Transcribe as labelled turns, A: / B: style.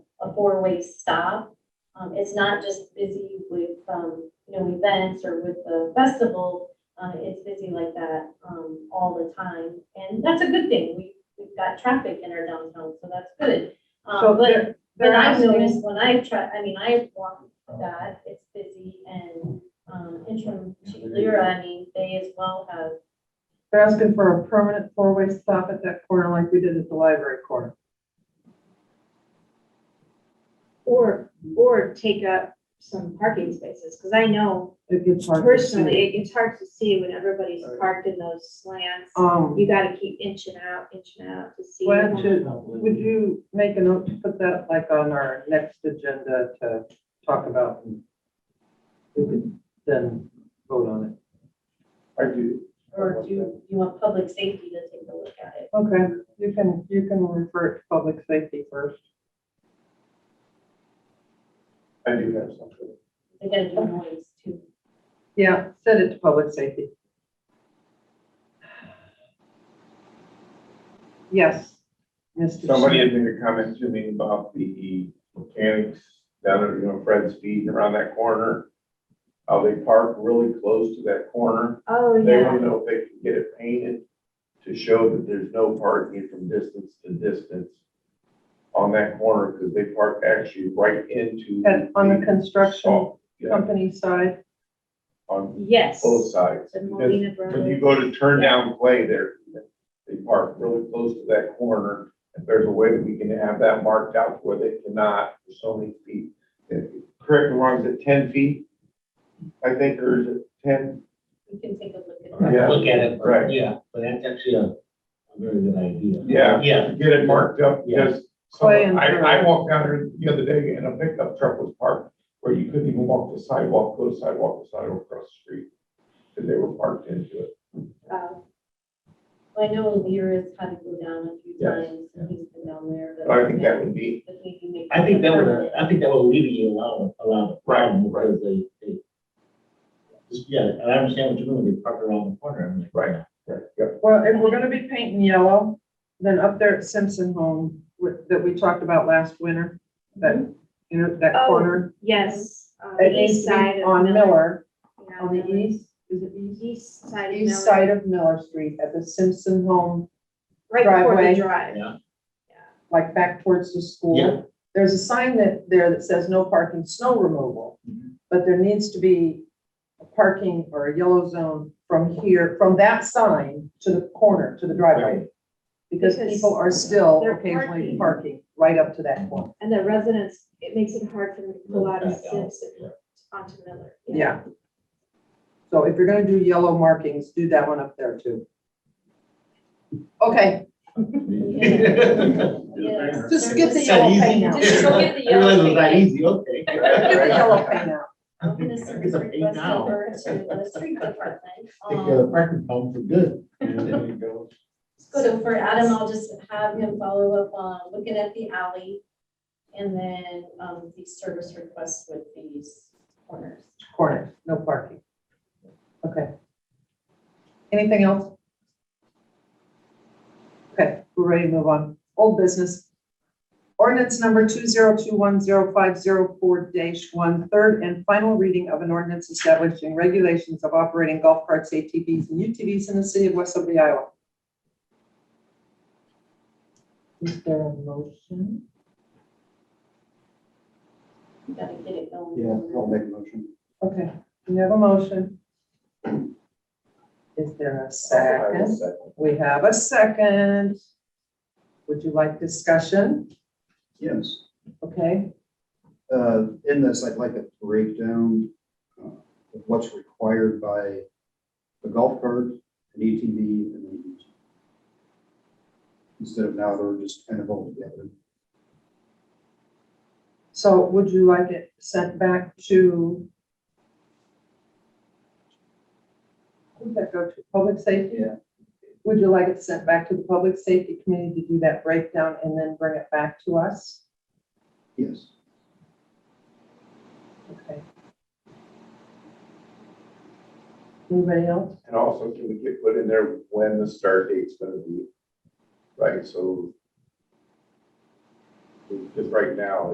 A: four-way stop. Um, it's not just busy with, um, you know, events or with the festival. Uh, it's busy like that, um, all the time. And that's a good thing. We, we've got traffic in our downtown, so that's good. Um,
B: So
A: but-
B: they're,
A: but
B: they're
A: I've
B: asking,
A: noticed when I try, I mean, I walk that, it's busy and, um, interim chief Lyra, I mean, they as well have,
B: they're asking for a permanent four-way stop at that corner like we did at the library corner.
C: Or, or take up some parking spaces, because I know
B: It gets hard to see.
C: personally, it- it's hard to see when everybody's parked in those slants.
B: Um,
C: You gotta keep inching out, inching out to see.
B: why
C: them.
B: don't you, would you make a note to put that like on our next agenda to talk about? and We could then vote on it.
D: I do.
A: or do you you want public safety to take a look at it?
B: Okay, you can, you can refer it to public safety first.
D: I do have something.
A: They gotta do noise too.
B: Yeah, send it to public safety. Yes. Mr.
D: Somebody
B: Smith.
D: had made a comment to me about the mechanics down at, you know, Fred's feet around that corner. How they park really close to that corner.
C: Oh,
D: They want
C: yeah,
D: to know if they can get it painted to show that there's no parking from distance to distance on that corner because they park actually right into.
B: And on the construction
D: salt, yeah,
B: company side,
D: on
C: yes,
D: both sides.
C: the
D: Because
C: Molina
D: When you
C: Brothers.
D: go to turn down Clay there, they park really close to that corner. If there's a way that we can have that marked out where they cannot, for so many feet. If- Correct me wrong, is it ten feet? I think, or is it ten?
A: We can take a look at
D: Alright.
A: that.
D: Yeah.
E: Look at it,
D: Right.
E: but yeah, but that's actually a, a very good idea.
D: Yeah.
E: Yeah,
D: Get it marked up, because
B: Clay and-
D: someone- I, I walked down there the other day and a pickup truck was parked where you couldn't even walk the sidewalk, go sidewalk, to sidewalk across the street. Because they were parked into it.
C: Oh,
A: Uh, I know Lyra's had to go down a few
D: Yes.
A: times, and he's been down there, but.
D: But I think that would be,
A: But maybe make
E: I think that would,
A: permanent.
E: I think that would alleviate a lot of, a lot of problem
D: Right, right.
E: because they, they. just- Yeah, and I understand what you're doing, they park around the corner, I'm like.
D: Right. right, yeah,
B: well, if we're gonna be painting yellow, then up there at Simpson Home, with- that we talked about last winter, that, you know, that
C: Oh,
B: corner.
C: yes, on
B: It
C: the
B: needs
C: east
B: to be
C: side of.
B: On Miller,
C: Yeah,
B: on the
C: Miller.
B: east, is it east?
C: East side of
B: East
C: Miller,
B: side of Miller Street at the Simpson Home,
C: right before
B: driveway.
C: the drive.
E: Yeah.
B: like back towards the school.
E: Yeah.
B: There's a sign that, there that says no parking, snow removal.
E: Mhm.
B: But there needs to be a parking or a yellow zone from here, from that sign to the corner, to the driveway. Because
C: Because
B: people are still
C: they're
B: occasionally
C: parking.
B: parking right up to that point.
C: And the residents, it makes it hard for them to pull out of
E: Back out,
C: Simpson
E: yeah.
C: onto Miller.
B: Yeah. So if you're gonna do yellow markings, do that one up there too. Okay,
A: Yeah.
B: just get the
E: Is that
B: yellow
E: easy?
B: paint out.
A: Just go get the
E: I realize it's
A: yellow
E: not
A: paint.
E: easy, okay.
B: Get the yellow paint out.
A: I'm gonna send this
E: It's a pain
A: request
E: now.
A: over to the street department.
E: Take
A: um,
E: the parking pump for good. There you go.
A: So for Adam, I'll just have him follow up on looking at the alley and then, um, the service requests with these corners.
B: corner, no parking. Okay. Anything else? Okay, we're ready to move on. Old business. Ordinance number two zero two one zero five zero four dash one, third and final reading of an ordinance establishing regulations of operating golf carts, ATVs, and UTVs in the city of West Liberty, Iowa. Is there a motion?
A: We Gotta get it going.
D: Yeah, I'll make a motion.
B: Okay, we have a motion. Is there a
D: I will
B: second?
D: second.
B: We have a second. Would you like discussion?
F: Yes,
B: Okay,
F: uh, in this, I'd like a breakdown uh, of what's required by a golf cart, an ATV, and an ATV. Instead of now, they're just kind of all together.
B: so would you like it sent back to? Who did that go to? Public safety?
F: Yeah.
B: Would you like it sent back to the public safety committee to do that breakdown and then bring it back to us?
F: Yes,
B: Okay. Anybody else?
D: And also, can we get put in there when the start date's gonna be? Right, so. Because right now,